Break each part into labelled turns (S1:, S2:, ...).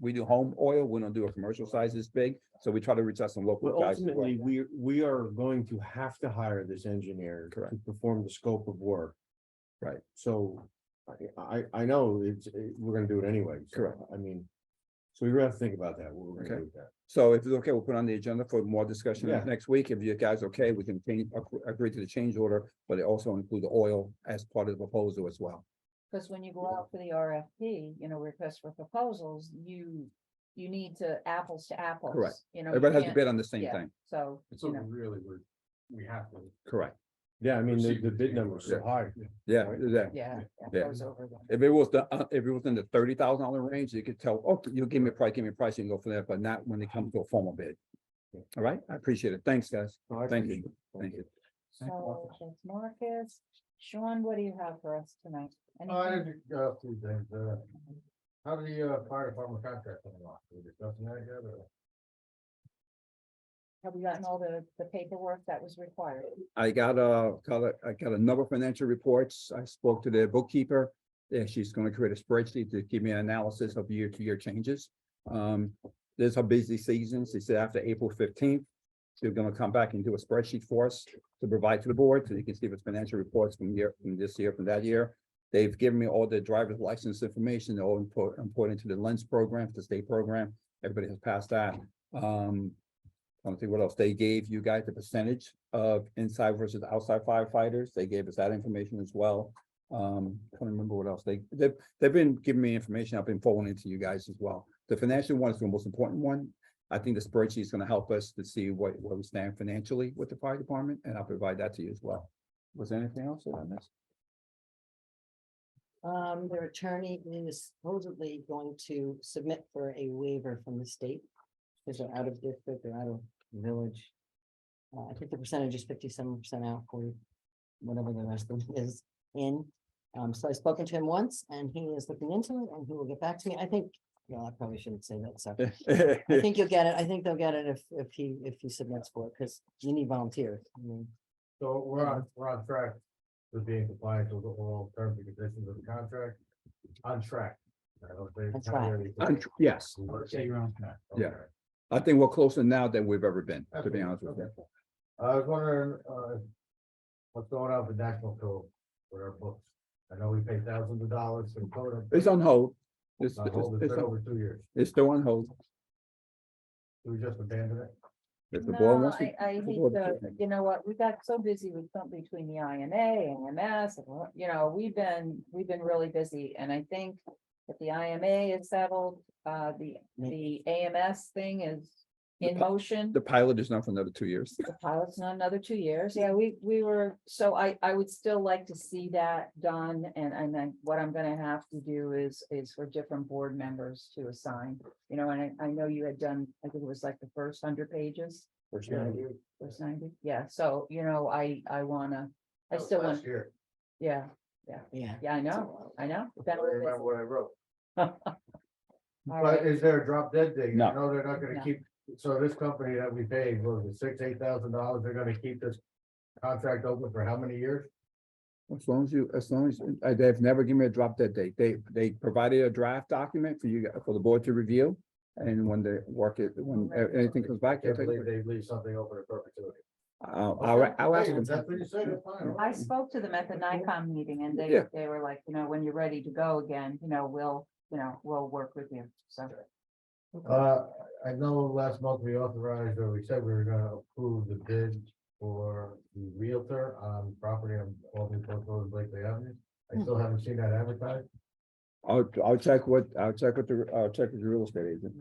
S1: we do home oil, we don't do a commercial size this big, so we try to reach out some local
S2: Well,
S1: guys. as well.
S2: ultimately, we, we are going to have to hire this engineer to
S1: Correct.
S2: perform the scope of work.
S1: Right.
S2: So I, I, I know it's, it- we're gonna do it anyway. so,
S1: Correct.
S2: I mean, so we have to think about that, what we're
S1: Okay.
S2: gonna do with that.
S1: So if it's okay, we'll put on the agenda for more discussion
S2: Yeah.
S1: next week. If you guys are okay, we can change, ag- agree to the change order, but it also include the oil as part of the proposal as well.
S3: Because when you go out for the RFP, you know, request for proposals, you, you need to apples to apples. You know. you
S1: Everybody has to
S3: can't-
S1: bid on the same
S3: Oh, yeah.
S1: thing,
S3: So,
S4: It's
S3: you
S4: something
S3: know,
S4: really we're, we have to.
S1: correct?
S2: Yeah, I mean, the,
S4: Proceed
S2: the
S4: with
S2: bid
S4: the
S2: numbers so
S1: order.
S2: high.
S1: Yeah,
S2: Right.
S1: yeah.
S3: yeah. that
S1: Yeah.
S3: goes over them.
S1: If it was the, uh, if it was in the thirty thousand dollar range, you could tell, oh, you give me a price, give me a price, you can go for that, but not when it comes to a formal bid. All right, I appreciate it. Thanks, guys.
S2: No, I
S1: Thank
S2: appreciate
S1: you.
S2: it.
S1: Thank you.
S3: So that's Marcus. Sean, what do you have for us tonight?
S4: I
S3: Anything?
S4: did, uh, two things, uh, how did the, uh, fire department contract come along? We discussing that yet, or?
S3: Have you gotten all the, the paperwork that was required?
S1: I got a, got a- I got a number of financial reports. I spoke to the bookkeeper. Yeah, she's gonna create a spreadsheet to give me an analysis of year-to-year changes. Um, there's a busy season. She said after April fifteenth, they're gonna come back and do a spreadsheet for us to provide to the board, so you can see what's financial reports from year, from this year, from that year. They've given me all the driver's license information, they're all import, important to the lens program, the state program. Everybody has passed that. Um, I don't think what else. They gave you guys the percentage of inside versus outside firefighters. They gave us that information as well. Um, can't remember what else. They, they've, they've been giving me information. I've been forwarding it to you guys as well. The financial one is the most important one. I think the spreadsheet is gonna help us to see what, where we stand financially with the fire department, and I'll provide that to you as well. Was there anything else that I missed?
S5: Um, their attorney is supposedly going to submit for a waiver from the state. Because they're out of district, they're out of village. Uh, I think the percentage is fifty-seven percent out for whatever the rest of it is in. Um, so I've spoken to him once and he is looking into it and he will get back to me. I think, no, I probably shouldn't say that, so. I think you'll get it. I think they'll get it if, if he, if he submits for it, because you need volunteers. I mean,
S4: So we're on, we're on track with being compliant with all terms and conditions of the contract, on track. I don't think.
S5: On track.
S1: I'm tr- Yes,
S4: Say you're on track.
S1: Yeah.
S4: Okay.
S1: I think we're closer now than we've ever been, to be
S4: Absolutely.
S1: honest with you.
S4: Okay. I was wondering, uh, what's going on with National Code with our books? I know we pay thousands of dollars in code.
S1: It's on hold. It's,
S4: I
S1: it's,
S4: hold it
S1: it's
S4: for
S1: on-
S4: over two years.
S1: it's still on hold.
S4: Do we just abandon it?
S1: If the board
S3: No,
S1: wants to-
S3: I, I hate
S1: board
S3: the,
S1: can.
S3: you know what, we got so busy with something between the IMA and MS, and what- you know, we've been, we've been really busy, and I think. If the IMA is settled, uh, the, the AMS thing is
S1: The
S3: in
S1: pi-
S3: motion.
S1: The pilot is not for another two years.
S3: The pilot's not another two years. Yeah, we, we were, so I, I would still like to see that done. And, and then what I'm gonna have to do is, is for different board members to assign. You know, and I, I know you had done, I think it was like the first hundred pages, first ninety. Yeah, so, you know, I, I wanna, I
S4: That was
S3: still want,
S4: Last year.
S3: yeah,
S5: Yeah.
S3: yeah, I know, I know.
S4: I
S3: That
S4: don't remember
S3: was-
S4: what I wrote.
S3: All
S4: But
S3: right,
S4: is there a drop dead date? You
S1: No.
S4: know they're not
S3: No.
S4: gonna keep, so this company that we paid, what was it, six, eight thousand dollars, they're gonna keep this contract open for how many years?
S1: As long as you, as long as, uh, they've never given me a drop dead date. They, they provided a draft document for you, for the board to review. And when they work it, when
S3: Oh
S1: uh, anything comes back,
S4: Can't
S1: they'll take
S4: believe
S1: it.
S4: they leave something open in perpetuity.
S1: I'll, I'll, I'll ask
S4: Hey,
S1: them.
S4: if That's what you said, it's fine. all
S3: I
S4: right.
S3: spoke to them at the NICOM meeting and they,
S1: Yeah.
S3: they were like, you know, when you're ready to go again, you know, we'll, you know, we'll work with you, so.
S4: Uh, I know last month we authorized, or we said we were gonna approve the bid for the Realtor on property on Albany Post Road, Blakely Avenue. I still haven't seen that advertised.
S1: I'll, I'll check what, I'll check with the, I'll check with the real estate agent.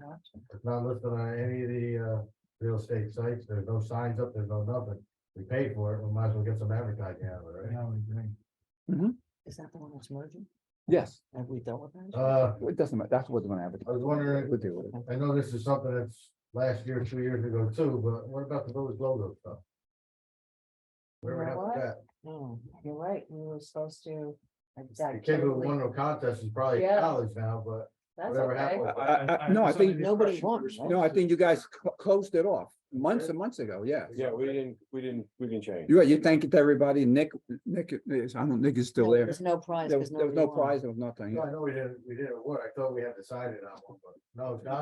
S4: It's not listed on any of the, uh, real estate sites. There's no signs up, there's no nothing. We paid for it, we might as well get some advertising out of it, right?
S5: Is that the one that's merging?
S1: Yes,
S5: Have we dealt with that?
S4: Uh,
S1: it doesn't matter. That's what's gonna happen.
S4: I was wondering-
S1: We'll deal with it.
S4: I know this is something that's last year, two years ago too, but what about the village logo stuff? Where we
S3: You
S4: have
S3: know what?
S4: that?
S5: No.
S3: You're right, we were supposed to. I- I
S4: The kid who
S3: totally-
S4: won the contest is probably in
S3: Yeah.
S4: college now, but
S3: That's
S4: Whatever
S3: okay.
S4: happened.
S1: I- I- I- no, I think-
S5: Nobody wants.
S1: No, I think you guys cl- closed it off months and months ago, yeah.
S6: Yeah, we didn't, we didn't, we didn't change.
S1: You, you thank it to everybody, Nick, Nick, is- I don't, Nick is still
S5: No,
S1: there.
S5: There's no prize.
S1: There was,
S5: 'cause
S1: there was
S5: nobody
S1: no
S5: won.
S1: prize, there was nothing.
S4: No, I know we didn't, we didn't award. I thought we had decided on one, but no, it's not.